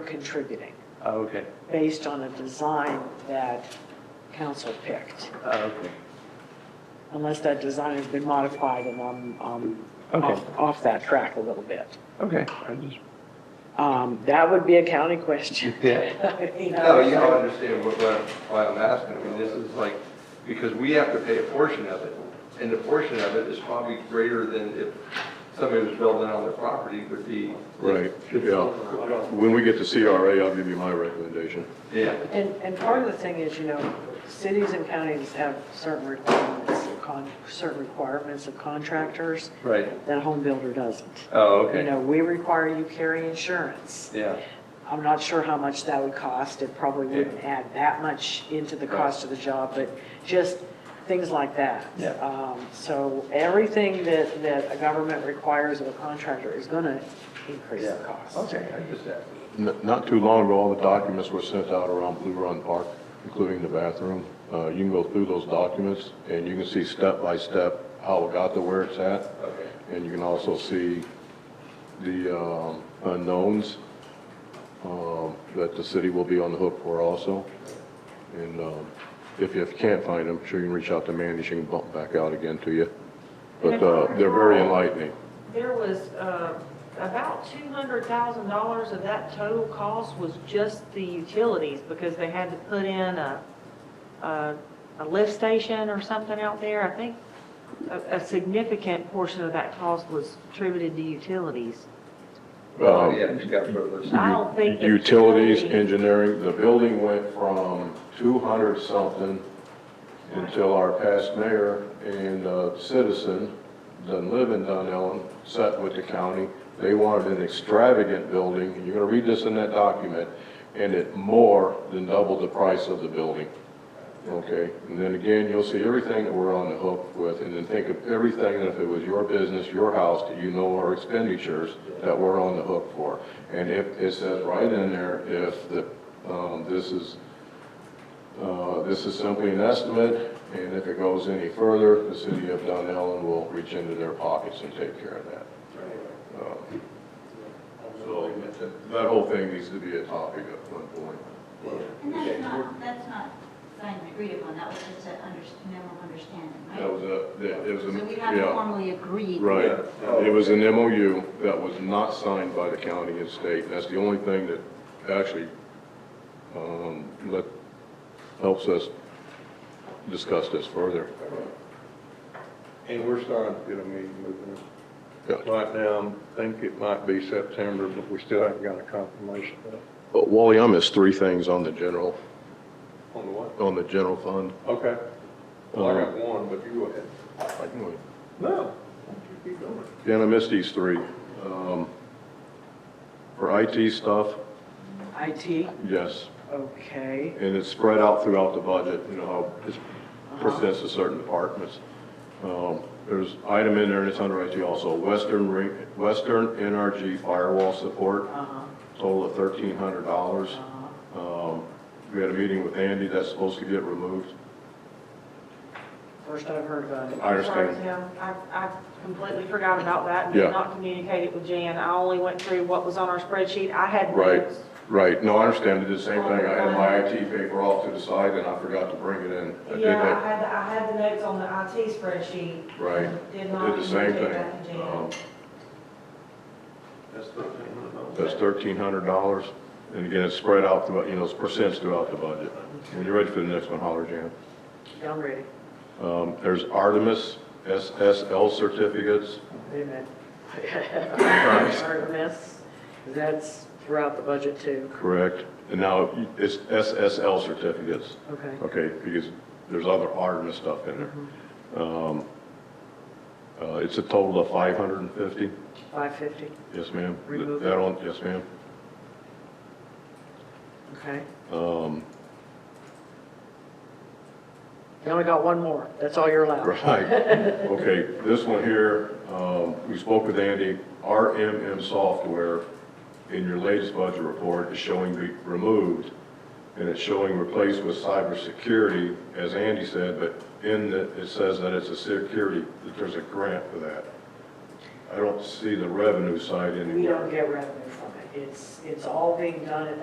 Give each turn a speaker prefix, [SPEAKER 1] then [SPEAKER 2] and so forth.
[SPEAKER 1] we're contributing
[SPEAKER 2] Oh, okay,
[SPEAKER 1] based on a design that council picked,
[SPEAKER 2] Oh, okay.
[SPEAKER 1] unless that design has been modified and I'm, I'm
[SPEAKER 2] Okay.
[SPEAKER 1] off, off that track a little bit.
[SPEAKER 2] Okay, I just,
[SPEAKER 1] Um, that would be a county question.
[SPEAKER 2] yeah,
[SPEAKER 1] I mean, I-
[SPEAKER 3] No, you don't understand what, what- why I'm asking. I mean, this is like, because we have to pay a portion of it. And the portion of it is probably greater than if somebody was building on their property would be.
[SPEAKER 4] Right, yeah. When we get to CRA, I'll give you my recommendation.
[SPEAKER 3] Yeah.
[SPEAKER 1] And, and part of the thing is, you know, cities and counties have certain requirements, of con, certain requirements of contractors
[SPEAKER 3] Right.
[SPEAKER 1] that a home builder doesn't.
[SPEAKER 3] Oh,
[SPEAKER 1] You
[SPEAKER 3] okay.
[SPEAKER 1] know, we require you carry insurance.
[SPEAKER 3] Yeah,
[SPEAKER 1] I'm not sure how much that would cost. It probably
[SPEAKER 3] Yeah.
[SPEAKER 1] wouldn't add that much into the cost of the job, but just things like that.
[SPEAKER 3] Yeah.
[SPEAKER 1] Um, So everything that, that a government requires of a contractor is going to increase
[SPEAKER 3] yeah.
[SPEAKER 1] the cost.
[SPEAKER 3] Okay, I just asked.
[SPEAKER 4] N- Not too long ago, all the documents were sent out around Blue Run Park, including the bathroom. Uh, You can go through those documents, and you can see step by step how it got to where it's at.
[SPEAKER 3] Okay.
[SPEAKER 4] And you can also see the um, unknowns um, that the city will be on the hook for also. And um, if you can't find them, sure you can reach out to Mandy, she can bump back out again to you. But uh, they're very enlightening.
[SPEAKER 5] There was uh, about $200,000 of that total cost was just the utilities because they had to put in a, a a lift station or something out there. I think a, a significant portion of that cost was attributed to utilities.
[SPEAKER 3] Well, Oh, yeah, you got to put a list.
[SPEAKER 5] I don't think. the
[SPEAKER 4] Utilities,
[SPEAKER 5] utility-
[SPEAKER 4] engineering, the building went from 200 something until our past mayor and uh, citizen, done live in Dunn Ellen, sat with the county. They wanted an extravagant building, and you're gonna read this in that document, and it more than doubled the price of the building. Okay, and then again, you'll see everything that we're on the hook with, and then think of everything that if it was your business, your house, that you know are expenditures that we're on the hook for. And if, it says right in there, if the, um, this is, uh, this is simply an estimate, and if it goes any further, the city of Dunellen will reach into their pockets and take care of that. Um, So, that whole thing needs to be a topic at one point.
[SPEAKER 6] And that's not, that's not signed and agreed upon, that was just an under, memo of understanding, right?
[SPEAKER 4] That was a, that- it was a,
[SPEAKER 6] So we haven't
[SPEAKER 4] yeah.
[SPEAKER 6] formally agreed.
[SPEAKER 4] Right. It was an MOU that was not signed by the county and state. That's the only thing that actually, um, let, helps us discuss this further.
[SPEAKER 7] And we're starting to get a meeting with them.
[SPEAKER 4] Yeah.
[SPEAKER 7] Right now, I think it might be September, but we still haven't got a confirmation of it.
[SPEAKER 4] But Wally, I missed three things on the general,
[SPEAKER 7] on the what.
[SPEAKER 4] on the general fund.
[SPEAKER 7] Okay. Well, I got one, but you go ahead.
[SPEAKER 4] I can wait.
[SPEAKER 7] No. You keep going.
[SPEAKER 4] Dan, I missed these three. Um, For IT stuff,
[SPEAKER 1] IT,
[SPEAKER 4] yes,
[SPEAKER 1] okay.
[SPEAKER 4] and it's spread out throughout the budget, you know, how it's percents to certain departments. Um, There's item in there, and it's under IT also, Western, Ring- Western NRG firewall support,
[SPEAKER 1] Uh-huh,
[SPEAKER 4] total of thirteen hundred dollars. Um,
[SPEAKER 1] uh-huh.
[SPEAKER 4] We had a meeting with Andy, that's supposed to get removed. First
[SPEAKER 1] I've heard
[SPEAKER 4] about it. I
[SPEAKER 5] Sorry,
[SPEAKER 4] understand.
[SPEAKER 5] Tim. I, I completely forgot about that and
[SPEAKER 4] Yeah.
[SPEAKER 5] did not communicate it with Jan. I only went through what was on our spreadsheet. I had
[SPEAKER 4] Right,
[SPEAKER 5] notes.
[SPEAKER 4] right, no, I understand, I did the same thing, I had my IT paper off to the side, and I forgot to bring it in. I did
[SPEAKER 5] Yeah,
[SPEAKER 4] that.
[SPEAKER 5] I had, the- I had the notes on the IT spreadsheet.
[SPEAKER 4] Right.
[SPEAKER 5] Did not
[SPEAKER 4] Did the same
[SPEAKER 5] communicate that to
[SPEAKER 4] thing.
[SPEAKER 5] Jan.
[SPEAKER 4] Um,
[SPEAKER 7] That's the thing.
[SPEAKER 4] That's thirteen hundred dollars, and again, it's spread out throughout, you know, it's percents throughout the budget. When you're ready for the next one, holler, Jan.
[SPEAKER 1] Yeah, I'm ready.
[SPEAKER 4] Um, there's Artemis SSL certificates.
[SPEAKER 1] Wait a minute. Artemis, that's throughout the budget too.
[SPEAKER 4] Correct. And now it's SSL certificates.
[SPEAKER 1] Okay.
[SPEAKER 4] Okay, because there's other Artemis stuff in there. Um, uh, it's a total of five hundred and fifty.
[SPEAKER 1] 550,
[SPEAKER 4] Yes, ma'am. Th-
[SPEAKER 1] Remove it.
[SPEAKER 4] That on, yes, ma'am.
[SPEAKER 1] okay.
[SPEAKER 4] Um,
[SPEAKER 1] You only got one more. That's all you're allowed.
[SPEAKER 4] Right. Okay, this one here, um, we spoke with Andy, RMM software in your latest budget report is showing be removed, and it's showing replaced with cybersecurity, as Andy said, but in the, it says that it's a security, that there's a grant for that. I don't see the revenue side
[SPEAKER 1] We don't
[SPEAKER 4] anywhere.
[SPEAKER 1] get revenue from it. It's, it's all being done at